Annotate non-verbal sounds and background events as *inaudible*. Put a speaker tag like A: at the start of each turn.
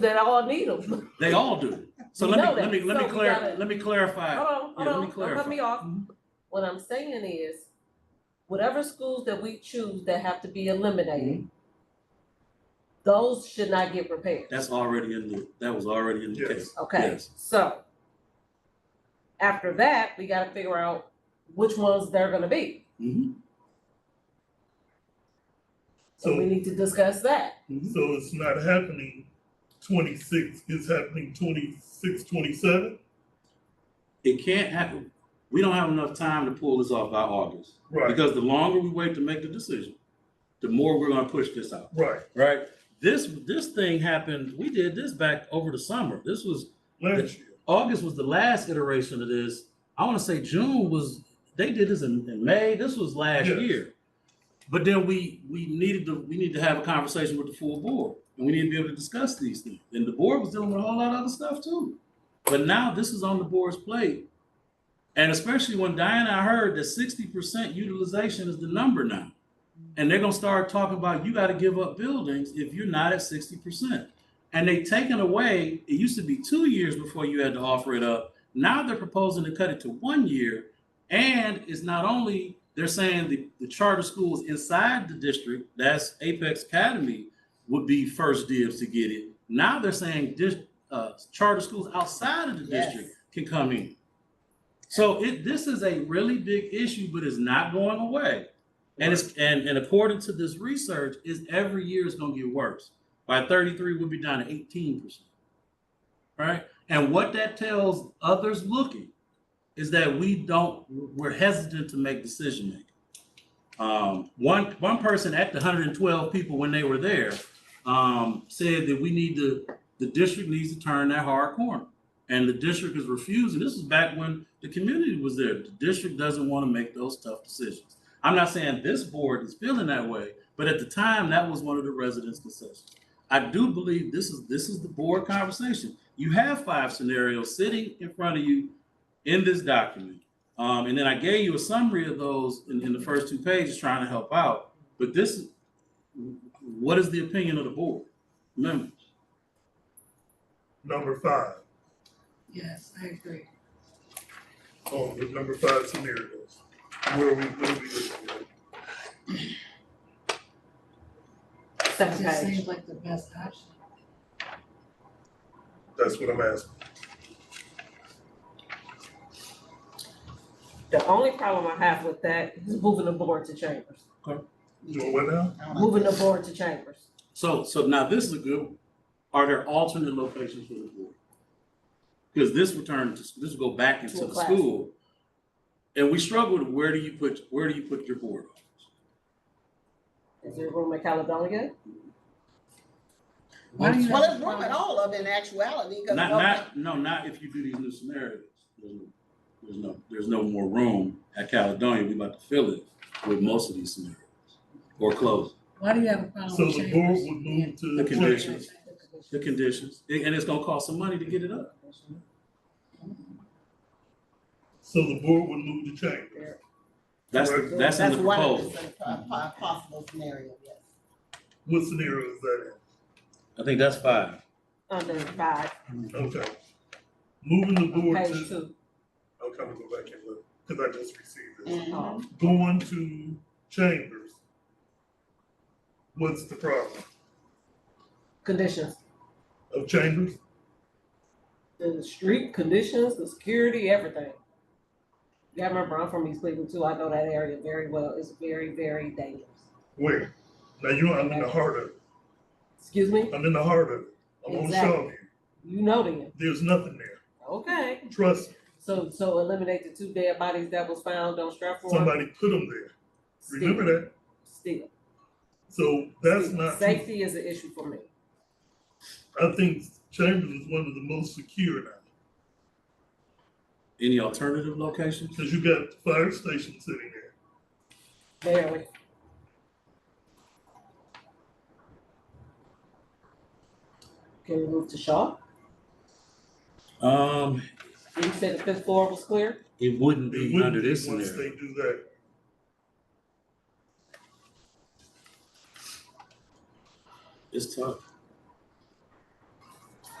A: that all need *laughs* them. Hold
B: They all do. So
A: We know
B: let me, let
A: that.
B: me, let
A: So
B: me
A: we
B: clar,
A: gotta-
B: let me
A: on,
B: clarify. Yeah,
A: hold
B: let me
A: on, don't cut me
B: clarify.
A: off.
B: Mhm.
A: What I'm saying is, whatever schools that we choose that have to be
B: Mm-hmm.
A: eliminated, those should not get repaired,
B: That's already in the, that was already in the
C: Yes.
B: case.
A: okay?
B: Yes.
A: So, after that, we gotta figure out which ones they're gonna be.
B: Mhm.
A: So we
C: So,
A: need to discuss that.
C: so it's not happening twenty-six, it's happening twenty-six, twenty-seven?
B: It can't happen. We don't have enough time to pull this off by August.
C: Right,
B: Because the longer we wait to make the decision, the more we're gonna push this out,
C: right.
B: right? This, this thing happened, we did this back over the summer. This was,
C: Last year,
B: August was the last iteration of this. I wanna say June was, they did this in, in May. This was last
C: Yes.
B: year. But then we, we needed to, we need to have a conversation with the full board and we need to be able to discuss these things. And the board was dealing with a whole lot of other stuff too. But now this is on the board's plate. And especially when Diana, I heard that sixty percent utilization is the number now. And they're gonna start talking about you gotta give up buildings if you're not at sixty percent. And they taken away, it used to be two years before you had to offer it up. Now they're proposing to cut it to one year and it's not only, they're saying the, the charter schools inside the district, that's Apex Academy, would be first dibs to get it. Now they're saying dis, uh, charter schools outside of the
A: Yes.
B: district can come in. So it, this is a really big issue, but it's not going away. And it's, and, and according to this research, is every year it's gonna get worse. By thirty-three, we'll be down to eighteen percent. Right? And what that tells others looking is that we don't, we're hesitant to make decision making. Um, one, one person at the hundred and twelve people when they were there, um, said that we need to, the district needs to turn that hard corner. And the district is refusing, this is back when the community was there, the district doesn't want to make those tough decisions. I'm not saying this board is feeling that way, but at the time, that was one of the residents' concessions. I do believe this is, this is the board conversation. You have five scenarios sitting in front of you in this document. Um, and then I gave you a summary of those in, in the first two pages trying to help out. But this, what is the opinion of the board? Remember,
C: number five,
D: Yes, I agree.
C: on the number five scenarios, where we, where we looking at.
A: Second
D: It
A: page.
D: seems like the best option.
C: That's what I'm asking.
A: The only problem I have with that is moving the board to chambers,
C: Doing what now?
A: moving the board to chambers.
B: so, so now this is a good, one. are there alternate locations for the board? Because this return, to- this will go back
A: To
B: into
A: a
B: the
A: classroom.
B: school. And we struggled, where do you put, where do you put your board?
A: Is there room at Caledonia?
D: Why do you
E: Well,
D: have
E: it's
D: a
E: room at
D: problem?
E: all of it in actuality, because.
B: Not, not, no, not if you do these new scenarios. There's no, there's no, there's no more room at Caledonia. We about to fill it with most of these scenarios or close
D: Why do you have a problem
C: So
D: with
C: the board
D: chambers?
C: would move to.
B: The
C: chambers.
B: conditions. the conditions. And and it's gonna cost some money to get it up.
C: So the board would move to chambers.
B: That's, the- that's in the
E: one of
B: proposal.
E: the po- po- Possible scenario, yes.
C: What scenario is that
B: I think that's five.
A: Under five,
C: in?
B: Mm-hmm.
C: Okay. Moving the board to,
A: page two.
C: I'll come and go back and look, because I just received this.
A: Oh,
C: Going to chambers. What's the problem
A: Conditions,
C: of chambers?
A: the street conditions, the security, everything. You gotta remember, I'm from East Cleveland too, I know that area very well, it's very, very dangerous.
C: Where? Now you, I'm in the heart of it.
A: Excuse me,
C: I'm in the heart of it. I'm on
A: Exactly.
C: Shawview.
A: you know them,
C: There's nothing there.
A: okay,
C: Trust me.
A: so, so eliminate the two dead bodies that was found on Stratford.
C: Somebody put them there. Remember that?
A: Still,
C: So that's
A: still.
C: not, I
A: Safety is an issue for me,
C: think chambers is one of the most secure now.
B: Any alternative locations?
C: Cause you got the fire station sitting there.
A: barely. Can we move to Shaw?
B: Um,
A: You said the fifth floor was clear?
B: it wouldn't
C: It
B: be under
C: wouldn't be
B: this
C: once
B: scenario.
C: they do that.
B: It's tough.